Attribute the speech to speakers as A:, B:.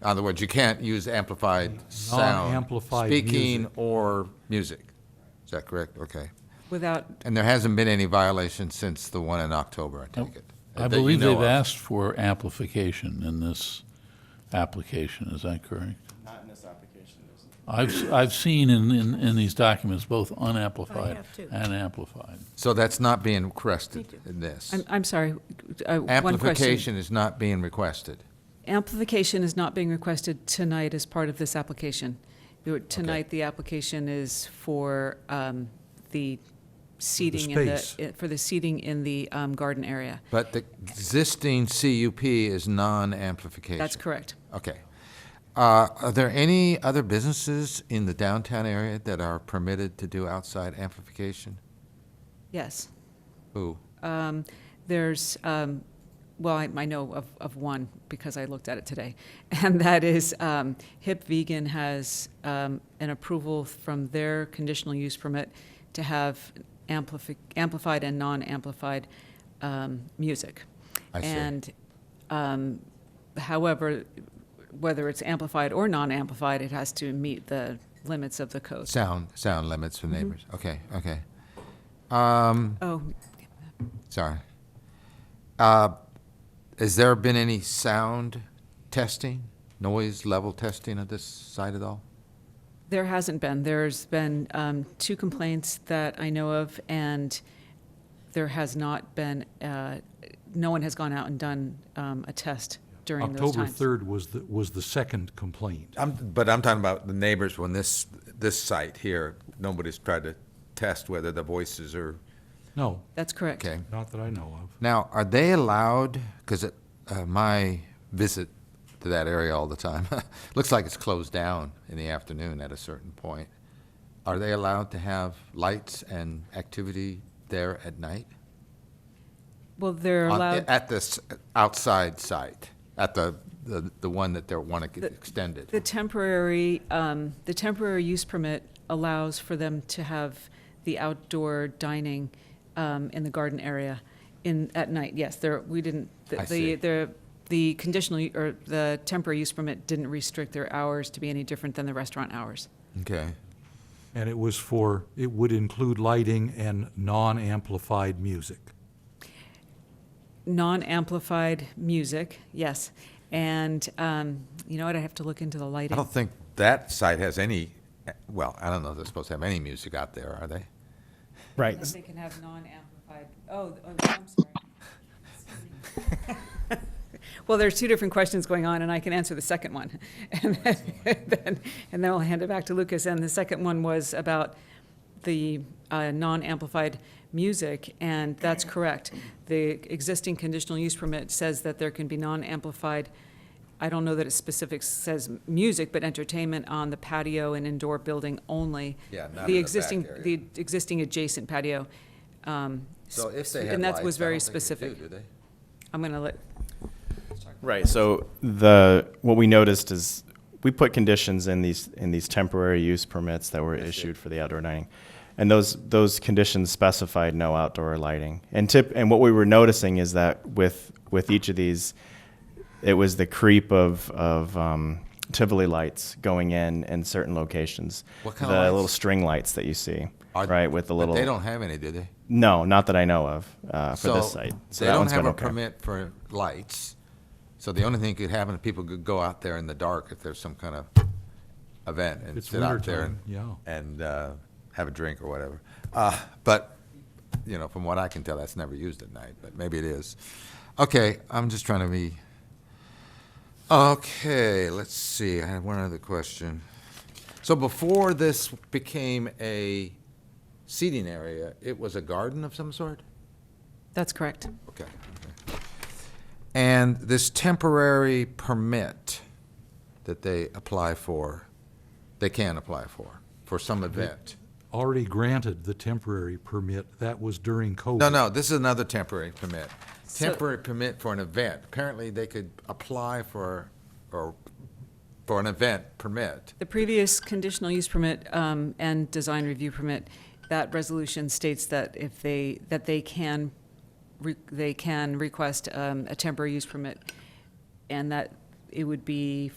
A: In other words, you can't use amplified sound.
B: Non-amplified
A: Speaking
B: music.
A: or music. Is that correct? Okay.
C: without,
A: And there hasn't been any violation since the one in October, I take it?
D: I
A: that you
D: believe
A: know
D: they've
A: of.
D: asked for amplification in this application, is that correct?
E: Not in this application, there's
D: I've, s- I've seen in, in, in these documents both unamplified
F: have, too.
D: and amplified.
A: So that's not being requested in this.
C: I'm, I'm sorry, uh, one question.
A: Amplification is not being requested.
C: Amplification is not being requested tonight as part of this application. Your- Tonight, the application is for um, the seating in the,
B: space.
C: i- for the seating in the um, garden area.
A: But the existing CUP is non-amplification.
C: That's correct.
A: Okay. Uh, Are there any other businesses in the downtown area that are permitted to do outside amplification?
C: Yes.
A: Who?
C: Um, There's, um, well, I I know of of one because I looked at it today, and that is um, Hip Vegan has um, an approval from their conditional use permit to have amplifi- amplified and non-amplified um, music.
A: I see.
C: And um, however, whether it's amplified or non-amplified, it has to meet the limits of the code.
A: Sound, sound limits for neighbors. Okay, okay. Um,
C: Oh,
A: sorry. Uh, Has there been any sound testing, noise level testing at this site at all?
C: There hasn't been. There's been um, two complaints that I know of, and there has not been, uh, no one has gone out and done um, a test during those
B: October
C: times.
B: 3rd was, the was the second complaint.
G: I'm, but I'm talking about the neighbors when this, this site here, nobody's tried to test whether the voices are,
B: No,
C: That's correct.
A: Okay.
B: not that I know of.
A: Now, are they allowed, because uh, my visit to that area all the time, looks like it's closed down in the afternoon at a certain point. Are they allowed to have lights and activity there at night?
C: Well, they're
A: On-
C: allowed,
A: At this outside site, at the, the, the one that they want to get
C: The-
A: extended?
C: the temporary, um, the temporary use permit allows for them to have the outdoor dining um, in the garden area in, at night. Yes, there, we didn't, the-
A: I
C: the,
A: see.
C: the, the conditional, u- or the temporary use permit didn't restrict their hours to be any different than the restaurant hours.
A: Okay.
B: And it was for, it would include lighting and non-amplified music.
C: non-amplified music, yes. And um, you know what? I have to look into the
G: I
C: lighting.
G: don't think
A: That site has any, well, I don't know if they're supposed to have any music out there, are they?
H: Right.
C: They can have non-amplified. Oh, oh I'm sorry. well, there's two different questions going on, and I can answer the second one, and then, then, and then I'll hand it back to Lucas. And the second one was about the uh, non-amplified music, and that's correct. The existing conditional use permit says that there can be non-amplified. I don't know that it specific says music, but entertainment on the patio and indoor building only.
A: Yeah, not in the
C: the
A: back
C: existing
A: area.
C: the existing adjacent patio. Um,
A: So if they
C: sp-
A: have
C: and
A: lights,
C: that was
A: I
C: very
A: don't think they do,
C: specific.
A: do they?
C: I'm going to let
H: Right. So the what we noticed is we put conditions in these in these temporary use permits that were issued for the outdoor dining, and those those conditions specified no outdoor lighting. And tip and what we were noticing is that with with each of these, it was the creep of of um, Tivoli lights going in in certain locations.
A: What kind
H: the
A: of lights?
H: little string lights that you see,
A: Are-
H: right? With the
A: but
H: little
A: They don't have any, do they?
H: no, not that I know of uh, for
A: So
H: this site.
A: They
H: that
A: don't
H: one's
A: have
H: been
A: a
H: okay.
A: permit for lights, so the only thing that could happen, is people could go out there in the dark if there's some kind of event and
B: It's
A: sit out there
B: wintertime,
A: and,
B: yeah.
A: and uh, have a drink or whatever. Uh, But, you know, from what I can tell, that's never used at night, but maybe it is. Okay, I'm just trying to be, okay, let's see, I have one other question. So before this became a seating area, it was a garden of some sort?
C: That's correct.
A: Okay. okay. And this temporary permit that they apply for, they can apply for, for some event?
B: Already granted the temporary permit, that was during COVID.
A: No, no, this is another temporary permit.
C: So-
A: Temporary permit for an event. Apparently, they could apply for, or, for an event permit.
C: The previous conditional use permit um, and design review permit, that resolution states that if they, that they can, re- they can request um, a temporary use permit, and that it would be